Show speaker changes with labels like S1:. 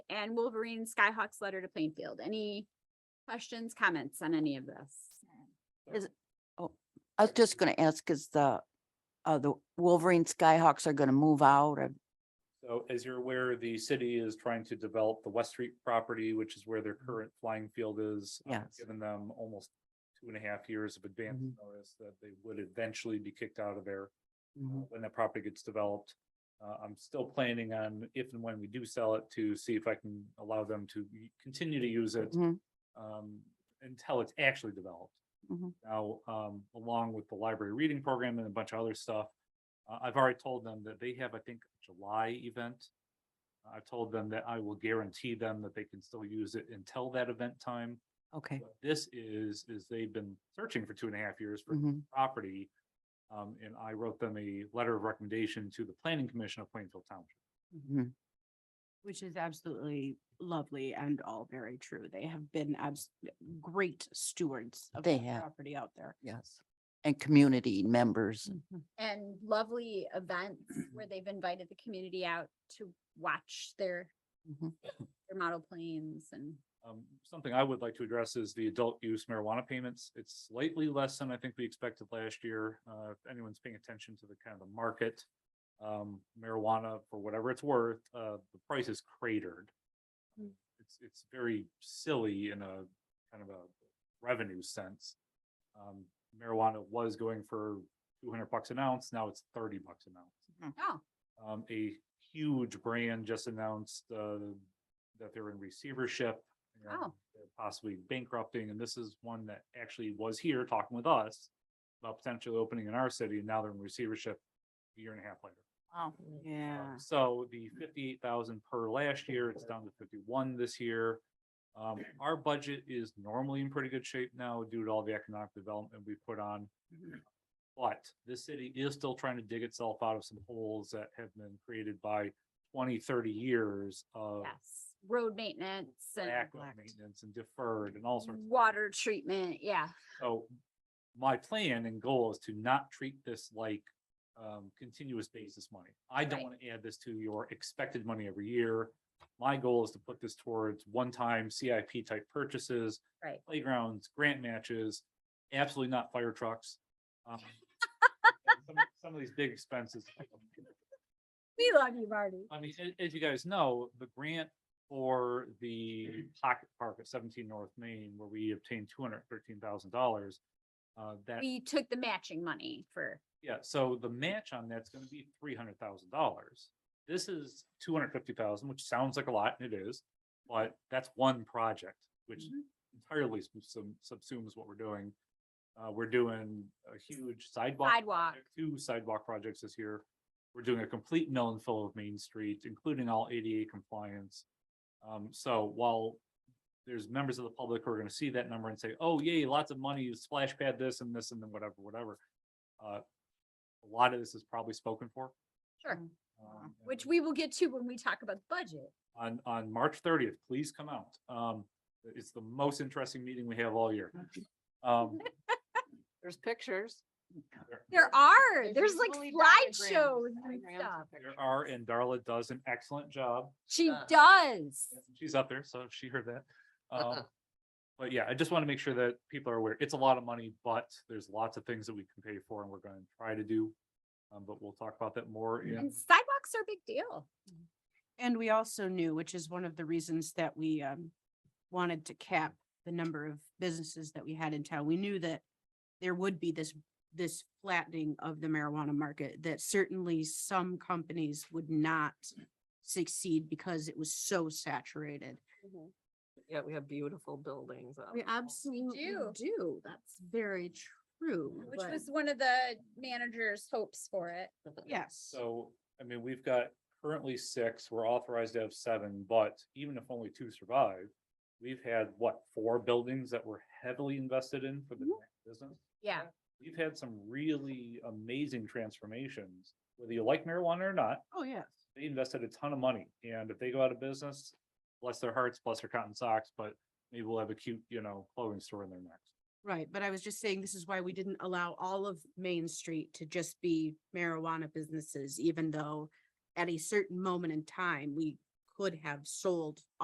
S1: and Wolverine Skyhawk's letter to Plainfield. Any questions, comments on any of this?
S2: oh, I was just gonna ask, is the, uh, the Wolverine Skyhawks are gonna move out or,
S3: Oh,
S4: So as you're aware, the city is trying to develop the West Street property, which is where their current flying field is. Uh,
S2: Yes.
S4: Given them almost two and a half years of advance
S2: Mhm.
S4: notice that they would eventually be kicked out of there
S2: Mm-hmm.
S4: uh, when that property gets developed. Uh, I'm still planning on if and when we do sell it to see if I can allow them to y- continue to use it
S2: Mhm.
S4: um, until it's actually developed.
S2: Mhm.
S4: Now, um, along with the library reading program and a bunch of other stuff, uh, I've already told them that they have, I think, a July event. I've told them that I will guarantee them that they can still use it until that event time.
S2: okay.
S4: What This is, is they've been searching for two and a half years for
S2: mhm,
S4: property. Um, and I wrote them a letter of recommendation to the planning commission of Plainfield Township.
S2: mhm.
S5: Which is absolutely lovely and all very true. They have been abs- great stewards of
S2: They
S5: that
S2: have.
S5: property out there.
S2: Yes. And community members.
S1: And lovely events where they've invited the community out to watch their
S4: Mm-hmm.
S2: Mhm.
S1: their model planes and
S4: Um, something I would like to address is the adult use marijuana payments. It's slightly less than I think we expected last year. Uh, if anyone's paying attention to the kind of the market. Um, marijuana, for whatever it's worth, uh, the price is cratered.
S1: Mm.
S4: It's, it's very silly in a kind of a revenue sense. Um, marijuana was going for two hundred bucks an ounce, now it's thirty bucks an ounce.
S1: oh,
S4: Um, a huge brand just announced, uh, that they're in receivership. and
S1: Oh.
S4: they're Possibly bankrupting, and this is one that actually was here talking with us about potentially opening in our city, and now they're in receivership a year and a half later.
S5: Wow.
S4: Um,
S5: Yeah.
S4: So the fifty-eight thousand per last year, it's down to fifty-one this year. Um, our budget is normally in pretty good shape now due to all the economic development we put on. But this city is still trying to dig itself out of some holes that have been created by 20, 30 years of
S1: yes, road maintenance and
S4: lack of
S5: neglect.
S4: maintenance and deferred and all sorts. of
S1: water treatment, yeah.
S4: so my plan and goal is to not treat this like um continuous basis money. I don't
S1: Right.
S4: want to add this to your expected money every year. My goal is to put this towards one-time CIP type purchases.
S1: Right.
S4: Playgrounds, grant matches, absolutely not fire trucks. Um, and some- Some of these big expenses.
S1: We love you, Marty.
S4: I mean, a- as you guys know, the grant for the pocket park at seventeen North Main, where we obtained two hundred thirteen thousand dollars. Uh, that,
S1: We took the matching money for,
S4: yeah, so the match on that's gonna be three hundred thousand dollars. This is two hundred fifty thousand, dollars which sounds like a lot, and it is, but that's one project, which
S1: Mhm.
S4: entirely s- sub- subsumes what we're doing. Uh, we're doing a huge sidewalk.
S1: Sidewalk.
S4: project, Two sidewalk projects this year. We're doing a complete mill and fill of Main Street, including all ADA compliance. Um, so while there's members of the public who are gonna see that number and say, oh, yay, lots of money, you splash pad this and this and then whatever, whatever. Uh, a lot of this is probably spoken for.
S1: sure,
S5: Mm.
S1: Mm-hmm.
S4: um,
S1: which we will get to when we talk about the budget.
S4: On, on March thirtieth, please come out. Um, it's the most interesting meeting we have all year. Um,
S5: There's pictures.
S4: there-
S1: There are, there's like slideshows and stuff.
S4: There are, and Darla does an excellent job.
S1: She
S5: Uh,
S1: does.
S4: She's up there, so she heard that. Um, But yeah, I just want to make sure that people are aware. It's a lot of money, but there's lots of things that we can pay for and we're going to try to do. Um, but we'll talk about that more. in-
S1: And sidewalks are a big deal.
S5: And we also knew, which is one of the reasons that we um wanted to cap the number of businesses that we had in town. We knew that there would be this this flattening of the marijuana market, that certainly some companies would not succeed because it was so saturated.
S3: Yeah, we have beautiful buildings. out
S6: We
S3: there.
S6: absolutely
S1: do.
S6: do. That's very true.
S1: Which
S6: but-
S1: was one of the manager's hopes for it.
S5: Yes.
S4: So, I mean, we've got currently six, we're authorized to have seven, but even if only two survive, we've had what, four buildings that were heavily invested in for the business?
S1: Yeah.
S4: We've had some really amazing transformations, whether you like marijuana or not,
S5: Oh, yes.
S4: they invested a ton of money, and if they go out of business, bless their hearts, bless their cotton socks, but maybe we'll have a cute, you know, clothing store in there next.
S5: Right, but I was just saying, this is why we didn't allow all of Main Street to just be marijuana businesses, even though at a certain moment in time, we could have sold